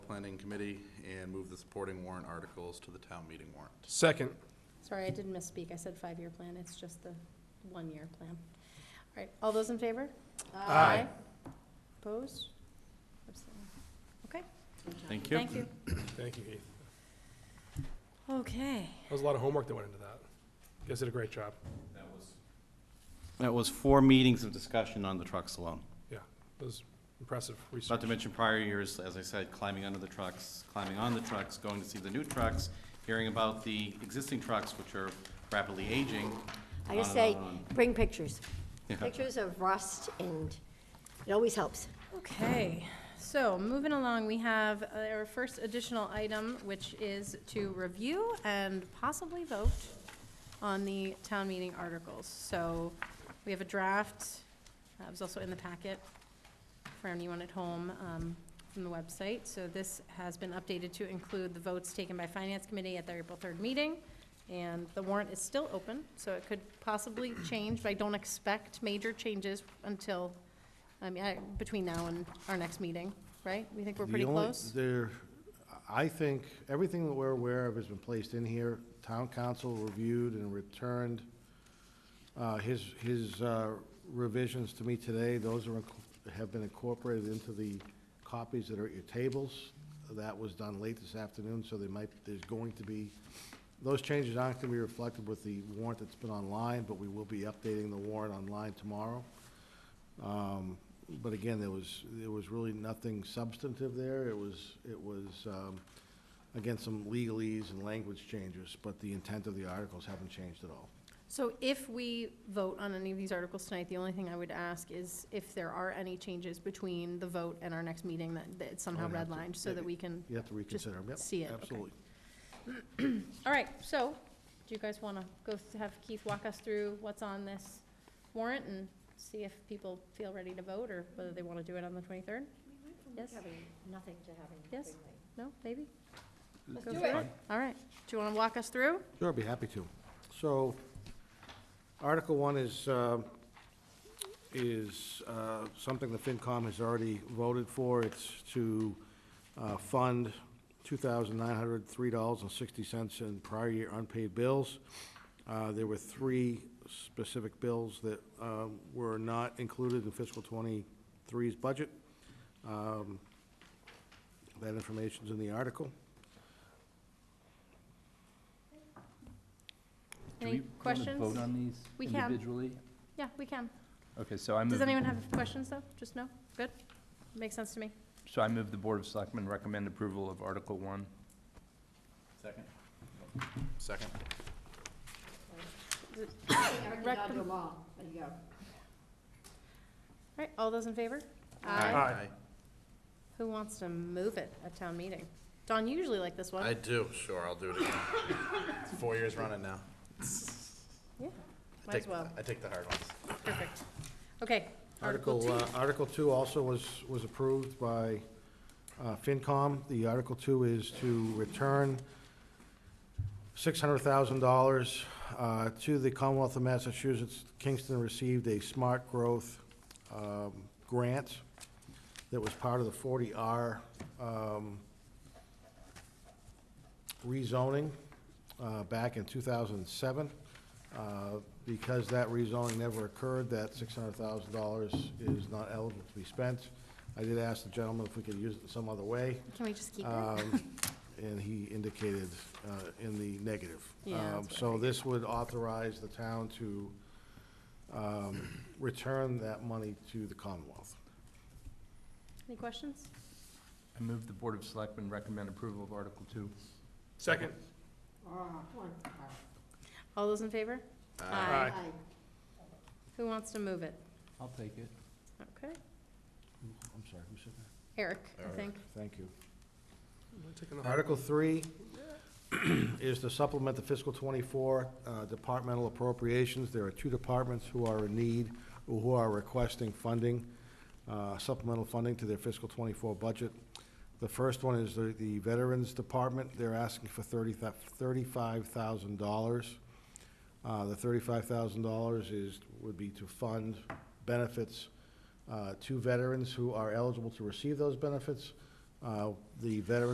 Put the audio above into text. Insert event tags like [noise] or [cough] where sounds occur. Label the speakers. Speaker 1: Planning Committee and move the supporting warrant articles to the town meeting warrant.
Speaker 2: Second.
Speaker 3: Sorry, I did misspeak. I said five-year plan. It's just the one-year plan. All right, all those in favor?
Speaker 2: Aye.
Speaker 3: Opposed? Abstained. Okay,
Speaker 1: Thank you.
Speaker 3: thank you.
Speaker 2: Thank you, Keith.
Speaker 3: Okay.
Speaker 2: That was a lot of homework that went into that. You guys did a great job.
Speaker 4: That was four meetings of discussion on the trucks alone.
Speaker 2: Yeah, it was impressive research.
Speaker 4: Not to mention prior years, as I said, climbing under the trucks, climbing on the trucks, going to see the new trucks, hearing about the existing trucks, which are rapidly aging.
Speaker 5: I
Speaker 4: on
Speaker 5: just
Speaker 4: and
Speaker 5: say,
Speaker 4: on and
Speaker 5: bring pictures.
Speaker 4: Yeah.
Speaker 5: Pictures of rust, and it always helps.
Speaker 3: Okay, so moving along, we have uh, our first additional item, which is to review and possibly vote on the town meeting articles. So we have a draft, that was also in the packet for anyone at home um, from the website. So this has been updated to include the votes taken by Finance Committee at their April 3rd meeting. And the warrant is still open, so it could
Speaker 6: [clears throat]
Speaker 3: possibly change, but I don't expect major changes until I mean, I- between now and our next meeting, right? We think we're
Speaker 6: The
Speaker 3: pretty
Speaker 6: only-
Speaker 3: close?
Speaker 6: There, I think, everything that we're aware of has been placed in here. Town council reviewed and returned uh, his, his uh, revisions to me today. Those are, inc- have been incorporated into the copies that are at your tables. That was done late this afternoon, so they might, there's going to be, those changes aren't going to be reflected with the warrant that's been online, but we will be updating the warrant online tomorrow. Um, But again, there was, there was really nothing substantive there. It was, it was, um, again, some legalese and language changes, but the intent of the articles haven't changed at all.
Speaker 3: So if we vote on any of these articles tonight, the only thing I would ask is if there are any changes between the vote and our next meeting that that it's somehow
Speaker 6: I'd have to-
Speaker 3: redlined, so that we can,
Speaker 6: You have to reconsider them, yep.
Speaker 3: see it, okay.
Speaker 6: Absolutely.
Speaker 3: all right, so, do you guys want to go th- have Keith walk us through what's on this warrant and see if people feel ready to vote or whether they want to do it on the 23rd? Yes?
Speaker 5: Nothing to having.
Speaker 3: Yes.
Speaker 5: nothing like-
Speaker 3: No, maybe?
Speaker 6: Let's
Speaker 3: Go
Speaker 5: do
Speaker 3: for
Speaker 5: it.
Speaker 3: All right, do you want to walk us through?
Speaker 6: Sure, I'd be happy to. So, Article One is, uh, is uh, something the FinCom has already voted for. It's to uh, fund $2,903.60 in prior year unpaid bills. Uh, There were three specific bills that um, were not included in fiscal '23's budget. Um, That information's in the article.
Speaker 3: Any questions?
Speaker 7: Do we want to vote on
Speaker 3: We
Speaker 7: these
Speaker 3: can.
Speaker 7: individually?
Speaker 3: Yeah, we can.
Speaker 7: Okay, so I move.
Speaker 3: Does anyone have questions, though? Just no? Good? Makes sense to me.
Speaker 7: So I move the Board of Selectmen recommend approval of Article One.
Speaker 1: Second. Second.
Speaker 5: Eric
Speaker 3: Rec-
Speaker 5: nodded along. There you go.
Speaker 3: All right, all those in favor?
Speaker 2: Aye.
Speaker 3: Who wants to move it at town meeting? Don, you usually like this one.
Speaker 1: I do, sure, I'll do it again. It's Four years running now.
Speaker 3: Yeah,
Speaker 1: I
Speaker 3: might as
Speaker 1: take-
Speaker 3: well.
Speaker 1: I take the hard ones.
Speaker 3: Perfect. Okay.
Speaker 6: Article,
Speaker 3: two.
Speaker 6: uh, Article Two also was, was approved by uh, FinCom. The Article Two is to return six hundred thousand dollars uh, to the Commonwealth of Massachusetts. Kingston received a smart growth um, grant that was part of the forty R um, rezoning uh, back in 2007. Uh, Because that rezoning never occurred, that $600,000 is not eligible to be spent. I did ask the gentleman if we could use it some other way,
Speaker 3: Can we just keep it?
Speaker 6: um, and he indicated uh, in the negative.
Speaker 3: Yeah, that's
Speaker 6: Um,
Speaker 3: what I
Speaker 6: So this would authorize the town to um, return that money to the Commonwealth.
Speaker 3: Any questions?
Speaker 7: I move the Board of Selectmen recommend approval of Article Two.
Speaker 2: Second.
Speaker 5: Ah, come on. Ah.
Speaker 3: All those in favor?
Speaker 2: Aye.
Speaker 5: Aye.
Speaker 3: Who wants to move it?
Speaker 7: I'll take it.
Speaker 3: Okay.
Speaker 6: I'm sorry, who said that?
Speaker 3: Eric, I think.
Speaker 6: Thank you.
Speaker 2: Am I taking the-
Speaker 6: Article three [clears throat] is to supplement the fiscal twenty-four uh, departmental appropriations. There are two departments who are in need, or who are requesting funding, uh, supplemental funding to their fiscal twenty-four budget. The first one is the, the Veterans Department. They're asking for thirty, thirty-five thousand dollars. Uh, the thirty-five thousand dollars is, would be to fund benefits uh, to veterans who are eligible to receive those benefits, Uh, The veteran